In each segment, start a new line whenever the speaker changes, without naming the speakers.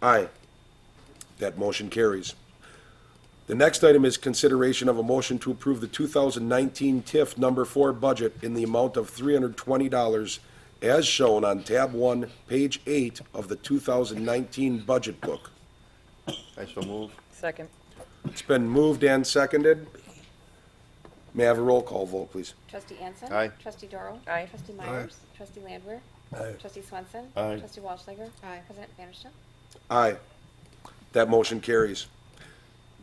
Aye. That motion carries. The next item is consideration of a motion to approve the 2019 TIF Number 4 budget in the amount of $320 as shown on Tab 1, Page 8 of the 2019 Budget Book.
I so move.
Second.
It's been moved and seconded. May I have a roll call vote, please?
Trustee Anson.
Aye.
Trustee Doral.
Aye.
Trustee Myers. Trustee Landwehr. Trustee Swenson.
Aye.
Trustee Walshiger.
Aye.
President Vanderstel.
Aye. That motion carries.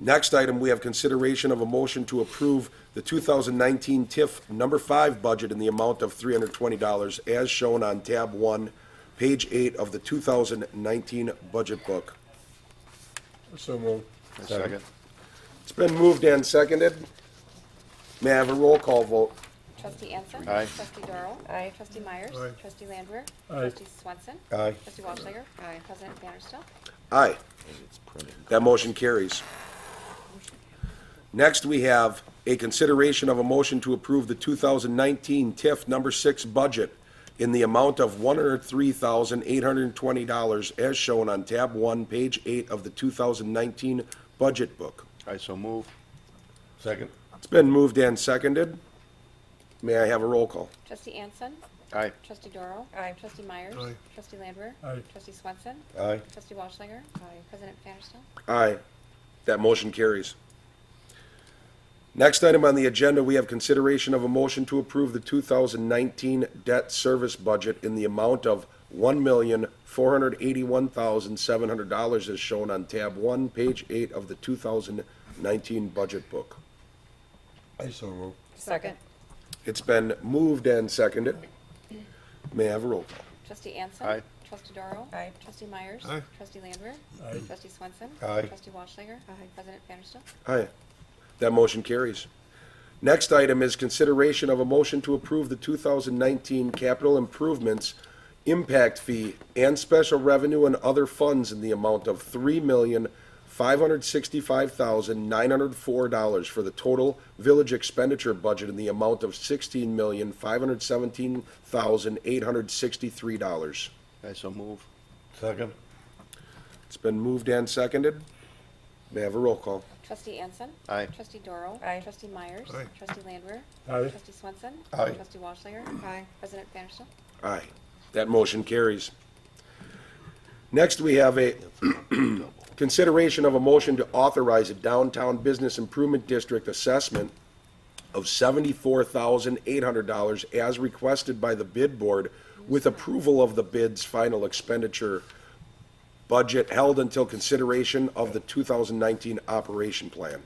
Next item, we have consideration of a motion to approve the 2019 TIF Number 5 budget in the amount of $320 as shown on Tab 1, Page 8 of the 2019 Budget Book.
So moved.
I Second.
It's been moved and seconded. May I have a roll call vote?
Trustee Anson.
Aye.
Trustee Doral.
Aye.
Trustee Myers.
Aye.
Trustee Landwehr.
Aye.
Trustee Swenson.
Aye.
Trustee Walshiger. Aye. President Vanderstel.
Aye. That motion carries. Next, we have a consideration of a motion to approve the 2019 TIF Number 6 budget in the amount of $103,820 as shown on Tab 1, Page 8 of the 2019 Budget Book.
I so move. Second.
It's been moved and seconded. May I have a roll call?
Trustee Anson.
Aye.
Trustee Doral.
Aye.
Trustee Myers.
Aye.
Trustee Landwehr.
Aye.
Trustee Swenson.
Aye.
Trustee Walshiger. Aye. President Vanderstel.
Aye. That motion carries. Next item on the agenda, we have consideration of a motion to approve the 2019 debt service budget in the amount of $1,481,700 as shown on tab 1, page 8 of the 2019 budget book.
I so moved.
Second.
It's been moved and seconded. May I have a roll call?
Trustee Anson.
Aye.
Trustee Doral.
Aye.
Trustee Myers.
Aye.
Trustee Landwehr.
Aye.
Trustee Swenson.
Aye.
Trustee Walshiger. Aye. President Vanderstel.
Aye. That motion carries. Next item is consideration of a motion to approve the 2019 capital improvements impact fee and special revenue and other funds in the amount of $3,565,904 for the total village expenditure budget in the amount of $16,517,863.
I so move. Second.
It's been moved and seconded. May I have a roll call?
Trustee Anson.
Aye.
Trustee Doral.
Aye.
Trustee Myers.
Aye.
Trustee Landwehr.
Aye.
Trustee Swenson.
Aye.
Trustee Walshiger. Aye. President Vanderstel.
Aye. That motion carries. Next, we have a consideration of a motion to authorize a downtown business improvement district assessment of seventy-four thousand eight hundred dollars as requested by the bid board with approval of the bid's final expenditure budget held until consideration of the two thousand nineteen operation plan.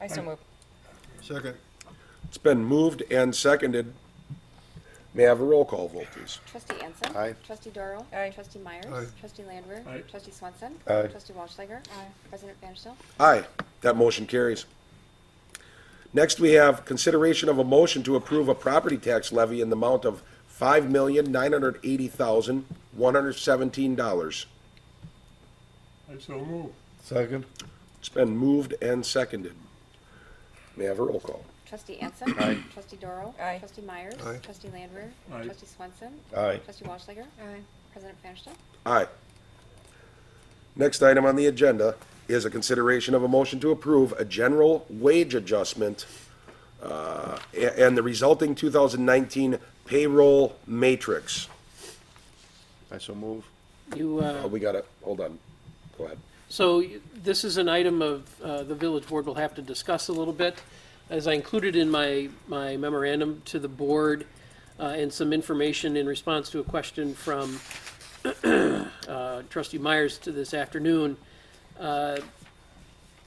I so move.
Second.
It's been moved and seconded. May I have a roll call vote, please?
Trustee Anson.
Aye.
Trustee Doral.
Aye.
Trustee Myers.
Aye.
Trustee Landwehr.
Aye.
Trustee Swenson.
Aye.
Trustee Walshiger. Aye. President Vanderstel.
Aye, that motion carries. Next, we have consideration of a motion to approve a property tax levy in the amount of five million, nine hundred eighty thousand, one hundred seventeen dollars.
I so moved.
Second.
It's been moved and seconded. May I have a roll call?
Trustee Anson.
Aye.
Trustee Doral.
Aye.
Trustee Myers.
Aye.
Trustee Landwehr.
Aye.
Trustee Swenson.
Aye.
Trustee Walshiger. Aye. President Vanderstel.
Aye. Next item on the agenda is a consideration of a motion to approve a general wage adjustment uh, a- and the resulting 2019 payroll matrix.
I so move.
You,
Oh,
uh,
we got it, hold on, go ahead.
so y- this is an item of, uh, the village board will have to discuss a little bit. As I included in my, my memorandum to the board, uh, and some information in response to a question from, uh, trustee Myers to this afternoon,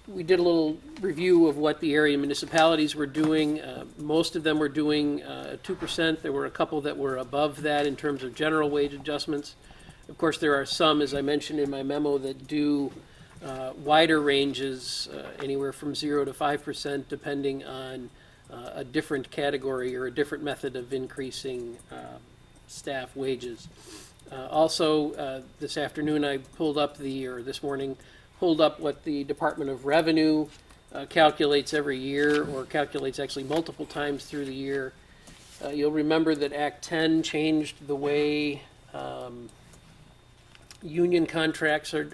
we did a little review of what the area municipalities were doing. Uh, Most of them were doing uh, two percent. There were a couple that were above that in terms of general wage adjustments. Of course, there are some, as I mentioned in my memo, that do uh, wider ranges, uh, anywhere from zero to five percent, depending on uh, a different category or a different method of increasing uh, staff wages. Uh, Also, uh, this afternoon, I pulled up the, or this morning, pulled up what the Department of Revenue uh, calculates every year, or calculates actually multiple times through the year. Uh, You'll remember that Act 10 changed the way um, union contracts are,